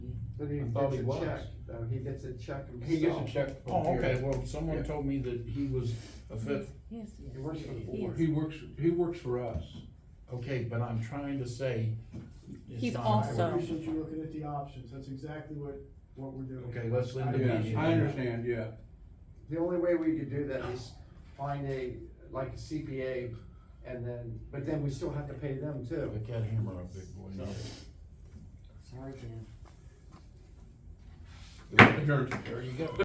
But he I thought gets he a was. check, though, he gets a check He gets a himself. check from Oh, okay, Gary. well, someone Yeah. told me that he was a fifth, Yes, He works for the board. He works, he works for us. okay, but I'm trying to say. it's He's not- also- I appreciate you looking at the options, that's exactly what, what we're doing. Okay, let's leave it Yeah, be. I understand, yeah. The only way we could do that is find a, like a CPA, and then, but then we still have to pay them The too. cat hammer up, big boy. Sorry, Jan. Adjourned. There you go.